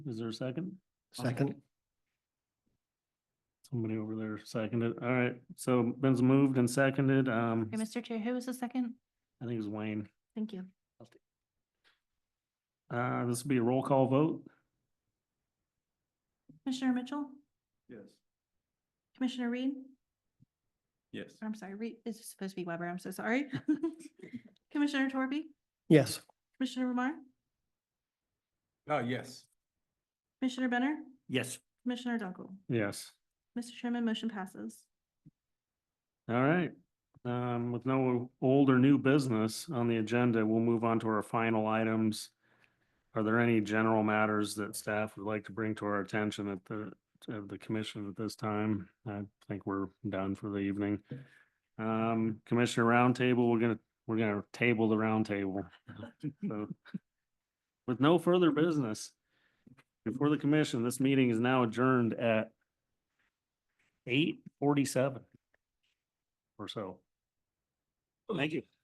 Is there a second? Second, Somebody over there seconded. All right, so Ben's moved and seconded. Um, Hey, Mr. Chair, who was the second? I think it was Wayne. Thank you. Uh, this will be a roll call vote. Commissioner Mitchell? Yes. Commissioner Reed? Yes. I'm sorry, Reed, this is supposed to be Weber, I'm so sorry. Commissioner Torby? yes, Commissioner Remar? Oh, yes. Commissioner Benner? Yes. Commissioner Dunkel? Yes. Mr. Chairman, motion passes. All right. Um, with no old or new business on the agenda, we'll move on to our final items. Are there any general matters that staff would like to bring to our attention at the, of the commission at this time? I think we're done for the evening. Um, Commissioner Roundtable, we're gonna, we're gonna table the roundtable. So, With no further business before the commission, this meeting is now adjourned at eight forty-seven or so. Thank you.